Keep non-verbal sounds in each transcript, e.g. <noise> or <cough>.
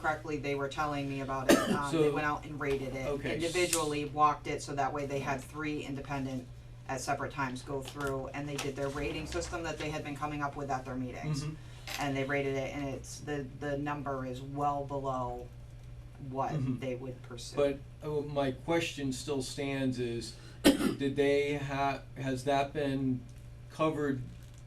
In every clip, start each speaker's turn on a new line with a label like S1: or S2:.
S1: correctly, they were telling me about it, um, they
S2: So-
S1: went out and rated it
S2: Okay.
S1: individually, walked it, so that way they had three independent at separate times go through, and they did their rating system that they had been coming up with at their meetings.
S2: Mhm.
S1: And they rated it, and it's, the, the number is well below what
S2: Mhm.
S1: they would pursue.
S2: But uh, my question still stands is, <coughs> did they ha- has that been covered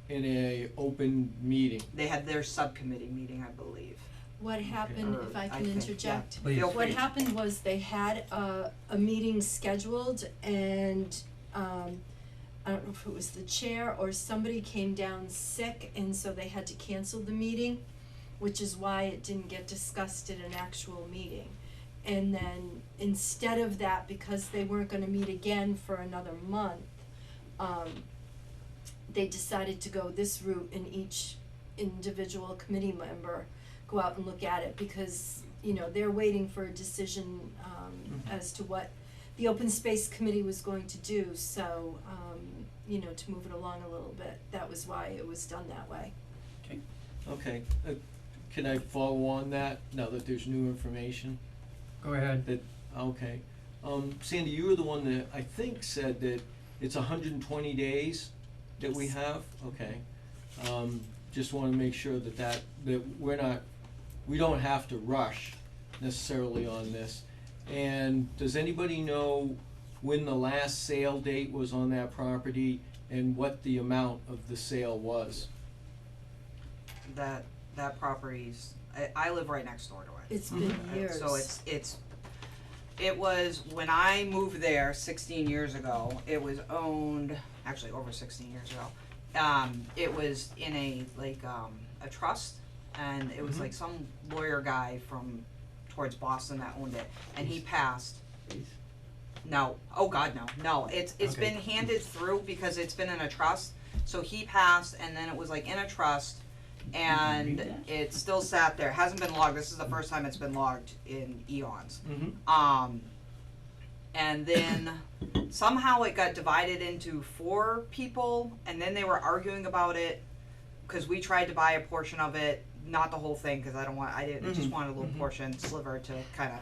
S2: in a open meeting?
S1: They had their subcommittee meeting, I believe,
S3: What happened,
S1: or
S3: if I
S1: think,
S3: can
S1: yeah.
S3: interject,
S4: Please.
S1: Feel
S3: what
S1: free.
S3: happened was they had a, a meeting scheduled and, um, I don't know if it was the chair or somebody came down sick and so they had to cancel the meeting, which is why it didn't get discussed at an actual meeting. And then instead of that, because they weren't gonna meet again for another month, um, they decided to go this route and each individual committee member go out and look at it because, you know, they're waiting for a decision um
S2: Mm-hmm.
S3: as to what the open space committee was going to do, so um, you know, to move it along a little bit, that was why it was done that way.
S2: Okay, uh, can I follow on that now that there's new information?
S4: Go ahead.
S2: That, okay, um, Sandy, you were the one that I think said that it's hundred and twenty days that we
S3: Yes.
S2: have, okay. Um, just wanna make sure that that, that we're not, we don't have to rush necessarily on this. And does anybody know when the last sale date was on that property and what the amount of the sale was?
S1: that, that property's, I, I live right next door to it.
S2: Mm-hmm.
S3: It's been
S1: Uh,
S3: years.
S1: So it's, it's, it was, when I moved there sixteen years ago, it was owned, actually over sixteen years ago. Um, it was in a, like, um, a trust, and it was
S2: Mhm.
S1: like some lawyer guy from towards Boston that owned it, and he passed. No, oh god, no, no, it's, it's
S4: Okay.
S1: been handed through because it's been in a trust, so he passed, and then it was like in a trust, and it still sat there, hasn't been logged, this is the first time it's been logged in eons.
S2: Mm-hmm.
S1: Um, and then somehow it got divided into four people, and then they were arguing about it, cause we tried to buy a portion of it, not the whole thing, cause I don't want, I didn't, I just
S2: Mhm,
S1: wanted a little
S2: mhm.
S1: portion sliver to kinda,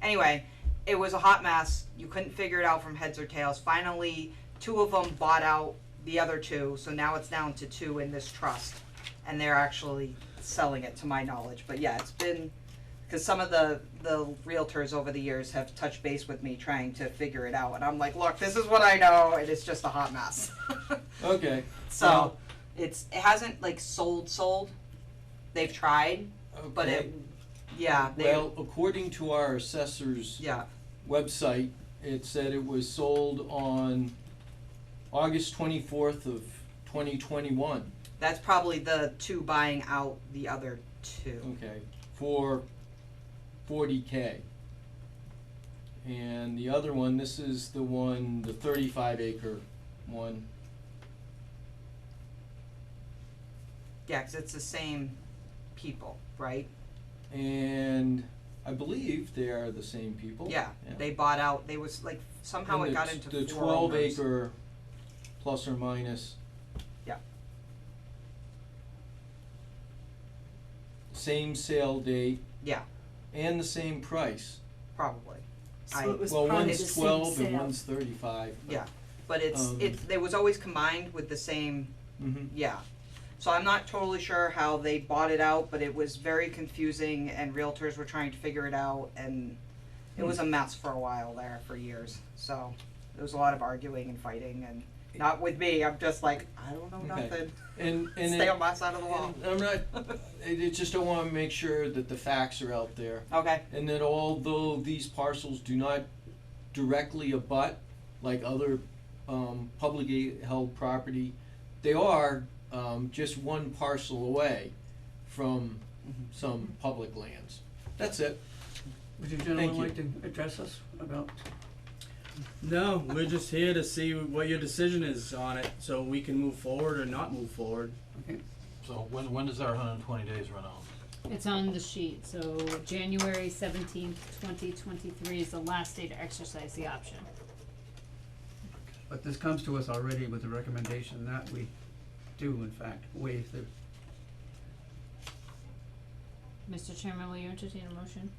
S1: anyway, it was a hot mess, you couldn't figure it out from heads or tails, finally, two of them bought out the other two, so now it's down to two in this trust, and they're actually selling it to my knowledge, but yeah, it's been, cause some of the, the realtors over the years have touched base with me trying to figure it out, and I'm like, look, this is what I know, and it's just a hot mess. <laughs>
S2: Okay,
S1: So, it's, it hasn't like sold, sold, they've tried, but
S2: okay,
S1: it, yeah, they,
S2: well, according to our assessor's
S1: yeah,
S2: website, it said it was sold on August twenty-fourth of twenty twenty-one,
S1: that's probably the two buying out the other two,
S2: okay, for forty K. And the other one, this is the one, the thirty-five acre one,
S1: yeah, 'cause it's the same people, right?
S2: and I believe they are the same people.
S1: Yeah, they bought out, they was like, somehow
S2: And
S1: it
S2: the
S1: got
S2: t-
S1: into
S2: the
S1: four
S2: twelve
S1: owners.
S2: acre, plus or minus.
S1: Yeah.
S2: Same sale date.
S1: Yeah.
S2: And the same price.
S1: Probably, I-
S3: So it was
S2: Well,
S3: part of the
S2: one's
S3: same
S2: twelve and
S3: sale.
S2: one's thirty-five.
S1: yeah, but it's,
S2: Um,
S1: it, it was always combined with the same
S2: Mm-hmm,
S1: Yeah, so I'm not totally sure how they bought it out, but it was very confusing and realtors were trying to figure it out and it was a mess for a while there, for years, so there was a lot of arguing and fighting and not with me, I'm just like, I don't know
S2: Okay.
S1: nothing,
S2: and, and
S1: stay
S2: it,
S1: on my side of the wall.
S2: <laughs> and I'm not, I I just don't wanna make sure that the facts are out there.
S1: Okay,
S2: And that although these parcels do not directly abut, like other, um, publicly held property, they are, um, just one parcel away from some public lands. That's it.
S4: Would you
S2: Thank
S4: gentlemen
S2: you.
S4: like to address us about?
S5: No, we're just here to see what your decision is on it, so we can move forward or not move forward.
S6: So when, when does our hundred and twenty days run out?
S7: It's on the sheet, so January seventeenth, twenty twenty-three is the last day to exercise the option.
S4: But this comes to us already with the recommendation that we do in fact waive the
S7: Mr. Chairman, will you entertain a motion?